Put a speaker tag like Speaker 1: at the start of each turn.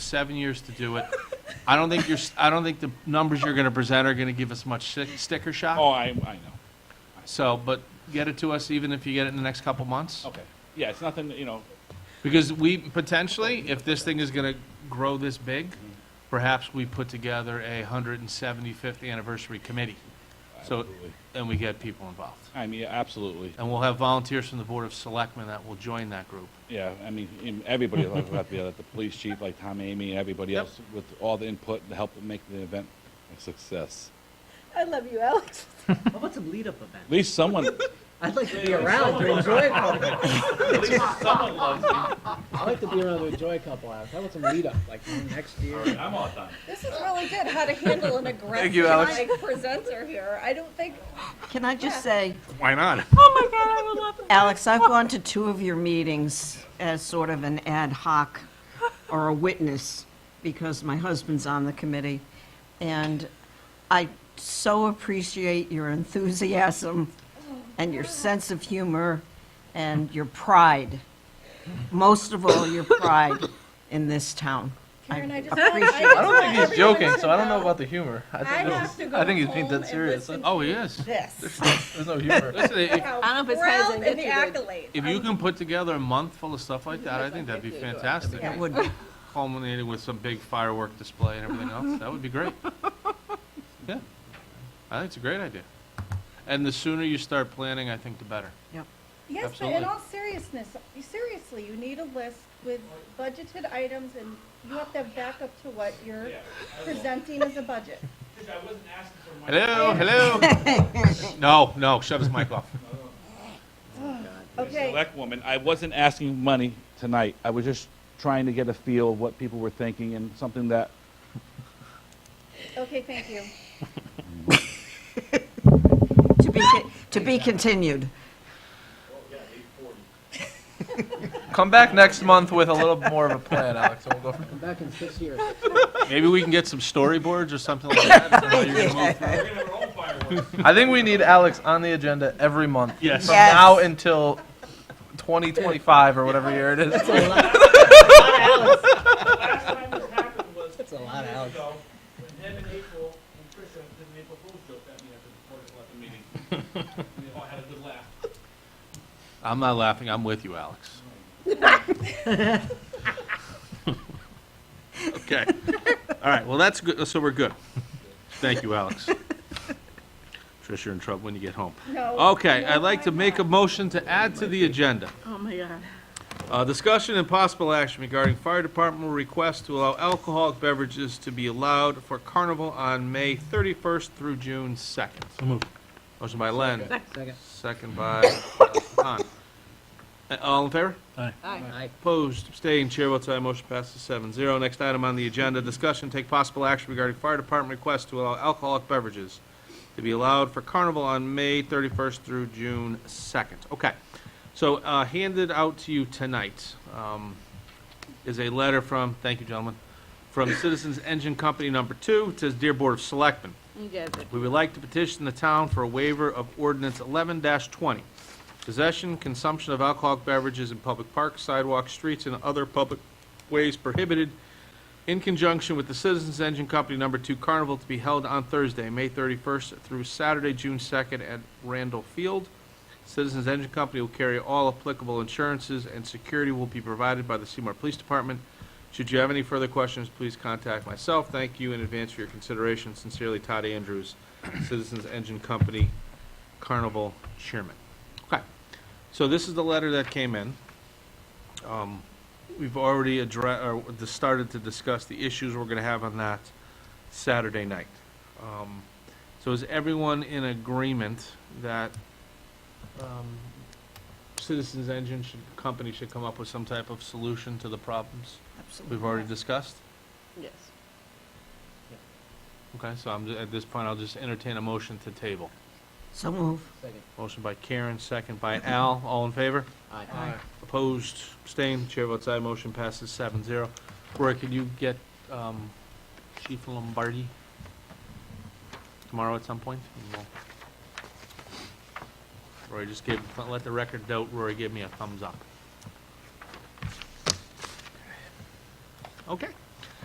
Speaker 1: seven years to do it. I don't think you're, I don't think the numbers you're gonna present are gonna give us much stick- sticker
Speaker 2: Oh,
Speaker 1: shock.
Speaker 2: I, I know.
Speaker 1: So, but get it to us, even if you get it in the next couple months.
Speaker 3: Oh.
Speaker 2: Okay. Yeah, it's nothing, that, you know,
Speaker 1: Because we, potentially, if this thing is gonna grow this big, perhaps we put together a hundred and seventy-fifth anniversary committee. So,
Speaker 2: absolutely.
Speaker 1: and we get people involved.
Speaker 2: I mean, absolutely.
Speaker 1: And we'll have volunteers from the Board of Selectmen that will join that group.
Speaker 2: Yeah, I mean, in- everybody will have to be there, the police chief, like Tom Amy, and everybody
Speaker 1: Yep.
Speaker 2: else with all the input to help make the event a success.
Speaker 4: I love you, Alex.
Speaker 5: How about some lead-up event?
Speaker 2: At least someone,
Speaker 5: I'd like to be around to enjoy a couple. I'd like to be around to enjoy a couple hours. How about some lead-up, like next year?
Speaker 2: I'm all done.
Speaker 4: This is really good, how to handle an aggressive
Speaker 3: you, Alex.
Speaker 4: like, presenter here. I don't think,
Speaker 6: Can I just say,
Speaker 3: Why not?
Speaker 6: Alex, I've gone to two of your meetings as sort of an ad hoc or a witness because my husband's on the committee. And I so appreciate your enthusiasm and your sense of humor and your pride. Most of all, your pride in this town.
Speaker 4: Karen, I just.
Speaker 6: appreciate
Speaker 4: I
Speaker 3: I don't think he's
Speaker 4: just want
Speaker 3: joking,
Speaker 4: everyone
Speaker 3: so I don't know
Speaker 4: to
Speaker 3: about the humor. I
Speaker 4: I
Speaker 3: think, it
Speaker 4: have
Speaker 3: was-
Speaker 4: to go
Speaker 3: I think he's being
Speaker 4: home
Speaker 3: dead
Speaker 4: and
Speaker 3: serious.
Speaker 4: listen
Speaker 1: Oh, he is.
Speaker 6: This.
Speaker 3: There's no humor.
Speaker 1: Listen, if,
Speaker 4: know
Speaker 7: I don't know if his head's
Speaker 4: proud
Speaker 7: in
Speaker 4: and
Speaker 7: it or good.
Speaker 4: accolades.
Speaker 1: if you can put together a month full of stuff like that, I think that'd be fantastic.
Speaker 6: It would be
Speaker 1: Culminating with some big firework display and everything else, that would be great. Yeah, I think it's a great idea. And the sooner you start planning, I think the better.
Speaker 4: Yes, but in
Speaker 1: Absolutely.
Speaker 4: all seriousness, seriously, you need a list with budgeted items and you have to have backup to what you're presenting as a budget.
Speaker 1: Hello, hello? No, no, shove his mic off.
Speaker 4: Okay,
Speaker 2: Select woman, I wasn't asking money tonight. I was just trying to get a feel of what people were thinking and something that,
Speaker 4: okay, thank you.
Speaker 6: To be, to be continued.
Speaker 3: Come back next month with a little more of a plan, Alex, and we'll go from
Speaker 5: Come back in six years.
Speaker 1: Maybe we can get some storyboards or something like that. I don't know how you're gonna move through it.
Speaker 3: I think we need Alex on the agenda every month.
Speaker 1: Yes.
Speaker 3: From
Speaker 6: Yes.
Speaker 3: now until 2025 or whatever year it is.
Speaker 5: That's a lot
Speaker 8: Last time this happened was
Speaker 5: That's a lot,
Speaker 8: years
Speaker 5: Alex.
Speaker 8: ago, when Deb and April and Trisha did an April Fool's joke at me after the Board of Selectmen meeting. We all had a good laugh.
Speaker 1: I'm not laughing, I'm with you, Alex. Okay, all right, well, that's good, so we're good. Thank you, Alex. Trish, you're in trouble when you get home.
Speaker 4: No.
Speaker 1: Okay,
Speaker 4: no,
Speaker 1: I'd like to
Speaker 4: I'm
Speaker 1: make a
Speaker 4: not.
Speaker 1: motion to add to the agenda.
Speaker 7: Oh, my God.
Speaker 1: Uh, discussion and possible action regarding fire department request to allow alcoholic beverages to be allowed for carnival on May thirty-first through June second. Motion by Len,
Speaker 5: Second.
Speaker 1: second by uh, Hahn. Uh, All in favor?
Speaker 5: Aye.
Speaker 1: Opposed, abstained, chair votes aye, motion passes seven zero. Next item on the agenda, discussion, take possible action regarding fire department request to allow alcoholic beverages to be allowed for carnival on May thirty-first through June second. Okay, so, uh, handed out to you tonight, um, is a letter from, thank you, gentlemen, from Citizens Engine Company Number Two, it says, Dear Board of Selectmen,
Speaker 7: You guys are
Speaker 1: we would like to petition the town for a waiver of ordinance eleven twenty. Possession, consumption of alcoholic beverages in public parks, sidewalks, streets, and other public ways prohibited in conjunction with the Citizens Engine Company Number Two Carnival to be held on Thursday, May thirty-first through Saturday, June second at Randall Field. Citizens Engine Company will carry all applicable insurances and security will be provided by the Seymour Police Department. Should you have any further questions, please contact myself. Thank you in advance for your consideration. Sincerely, Todd Andrews, Citizens Engine Company Carnival Chairman. Okay, so this is the letter that came in. Um, We've already addressed, or d- started to discuss the issues we're gonna have on that Saturday night. Um, So is everyone in agreement that um, Citizens Engine should, company should come up with some type of solution to the problems we've already discussed?
Speaker 7: Yes.
Speaker 1: Okay, so I'm, at this point, I'll just entertain a motion to table.
Speaker 6: So move.
Speaker 5: Second.
Speaker 1: Motion by Karen, second by Al, all in favor?
Speaker 5: Aye.
Speaker 1: Opposed, abstained, chair votes aye, motion passes seven zero. Roy, can you get um, Chief Lombardi tomorrow at some point? And we'll- Roy just gave, let the record note, Roy gave me a thumbs up. Okay.